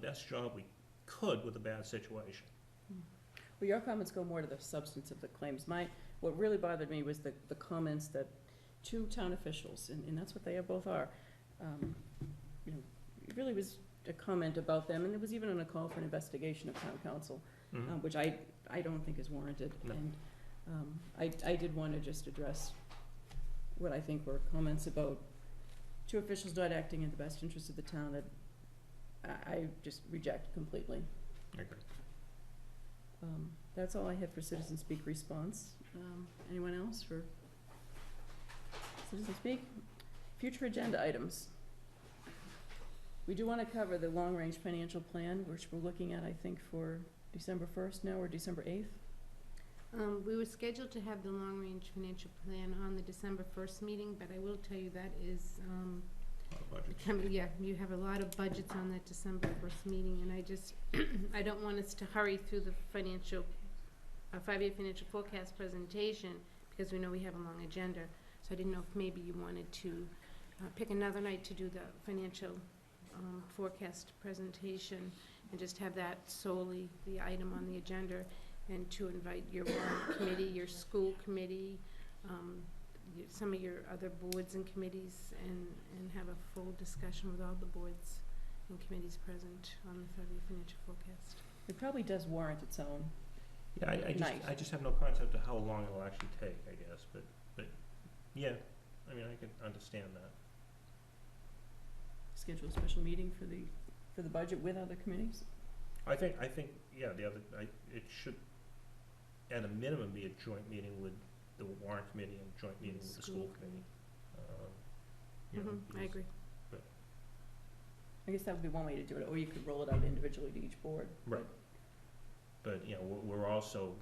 best job we could with a bad situation. Well, your comments go more to the substance of the claims. My, what really bothered me was the, the comments that two town officials, and, and that's what they are- both are, um, you know, it really was a comment about them, and it was even on a call for an investigation of town council, Mhm. um, which I, I don't think is warranted. No. And, um, I, I did wanna just address what I think were comments about two officials not acting in the best interest of the town that I, I just reject completely. I agree. Um, that's all I had for citizen speak response. Um, anyone else for citizen speak? Future agenda items. We do wanna cover the long-range financial plan, which we're looking at, I think, for December first now or December eighth. Um, we were scheduled to have the long-range financial plan on the December first meeting, but I will tell you that is, um, Lot of budgets. becoming, yeah, you have a lot of budgets on that December first meeting, and I just, I don't want us to hurry through the financial, uh, five-year financial forecast presentation, because we know we have a long agenda, so I didn't know if maybe you wanted to, uh, pick another night to do the financial, um, forecast presentation, and just have that solely the item on the agenda, and to invite your warrant committee, your school committee, um, y- some of your other boards and committees and, and have a full discussion with all the boards and committees present on the February financial forecast. It probably does warrant its own. Yeah, I, I just, Nice. I just have no concept of how long it'll actually take, I guess, but, but, yeah, I mean, I can understand that. Schedule a special meeting for the, for the budget with other committees. I think, I think, yeah, the other, I, it should, at a minimum, be a joint meeting with the warrant committee and joint meeting with the school School. committee. Um, you know, hmm I because- agree. I guess that would be one way to do it, or you could roll it out individually to each board. Right. But, you know, we're, we're also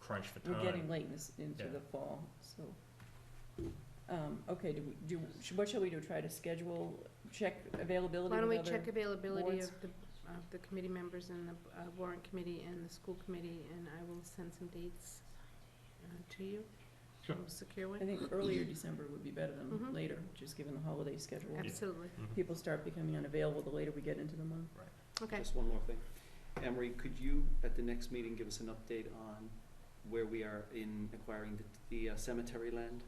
crunched for time. We're getting late in this, into Yeah. the fall, so. Um, okay, do, we- do, sh- what shall we do, try to schedule, check availability Why don't with we other- check availability boards? of the, of the committee members and the uh, warrant committee and the school committee, and I will send some dates uh, to you. Sure. We'll Secure I one, think earlier December would be better Mhm. than later, just given the holiday schedule. absolutely. Mhm. People start becoming unavailable the later we get into the month. Okay, Just one more thing. Emery, could you, at the next meeting, give us an update on where we are in acquiring the, the uh, cemetery land?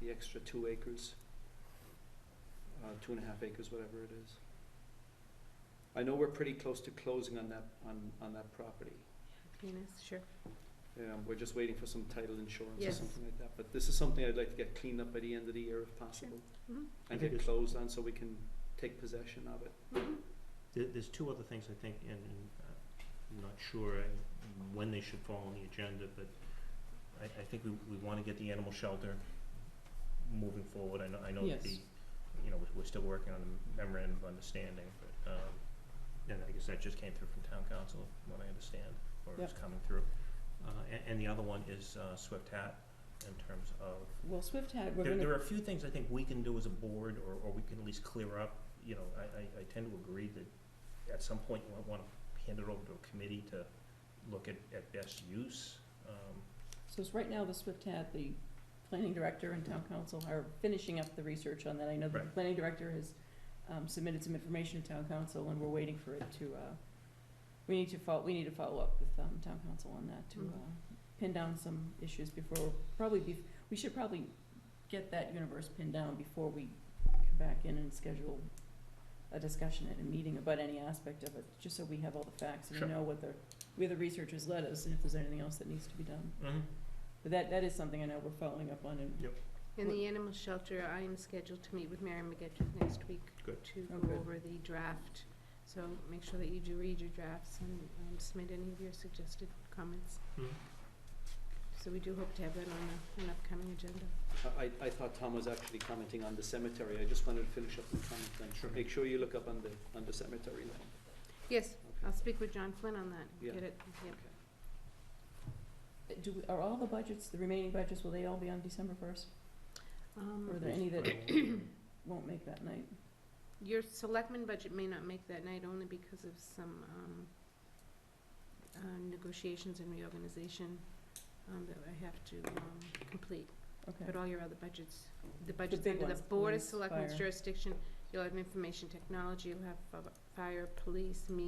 The extra two acres? Uh, two and a half acres, whatever it is. I know we're pretty close to closing on that, on, on that property. Venus, sure. Um, we're just waiting for some title insurance or Yes. something like that, but this is something I'd like to get cleaned up by the end of the year if possible. Mhm. I And think get it's- closed on so we can take possession of it. Mhm. There, there's two other things I think, and and, uh, I'm not sure uh, when they should fall on the agenda, but I, I think we, we wanna get the animal shelter moving forward. I know, I know that the, Yes. you know, we're, we're still working on the memorandum of understanding, but, um, and I guess that just came through from town council, from what I understand, or is coming through. Uh, and, and the other one is, uh, Swift Hat in terms of Well, Swift had, we're there, there gonna, are a few things I think we can do as a board, or, or we can at least clear up, you know, I, I, I tend to agree that at some point you might wanna hand it over to a committee to look at, at best use, um, so it's right now the Swift had, the planning director and town council are finishing up the research on that. I know that the Right. planning director has, um, submitted some information to town council and we're waiting for it to, uh, we need to fol, we need to follow up with, um, town council on that to, Mhm. uh, pin down some issues before, probably be, we should probably get that universe pinned down before we come back in and schedule a discussion at a meeting about any aspect of it, just so we have all the facts and Sure. we know what the, where the research has led us and if there's anything else that needs to be done. But that, that is something I know we're following up on and In the animal shelter, I am scheduled to meet with Mary McGettrick next week Good. to Oh, go good. over the draft. So make sure that you do read your drafts and um, submit any of your suggested comments. Mhm. So we do hope to have that on a- an upcoming agenda. I, I thought Tom was actually commenting on the cemetery. I just wanted to finish up the comment then. Sure. Make sure you look up on the, on the cemetery land. Yes, I'll Okay. speak with John Flynn on that. Yeah. Get it, yep. do, we- are all the budgets, the remaining budgets, will they all be on December first? Um, Or are there any that won't make that night? Your selectmen budget may not make that night only because of some, um, uh, negotiations and reorganization, um, that I have to, um, complete. Okay. But all your other budgets, the budgets big under the ones, Board of police, Selectmen's fire. jurisdiction, you'll have information technology, you'll have fi- fire, police, me,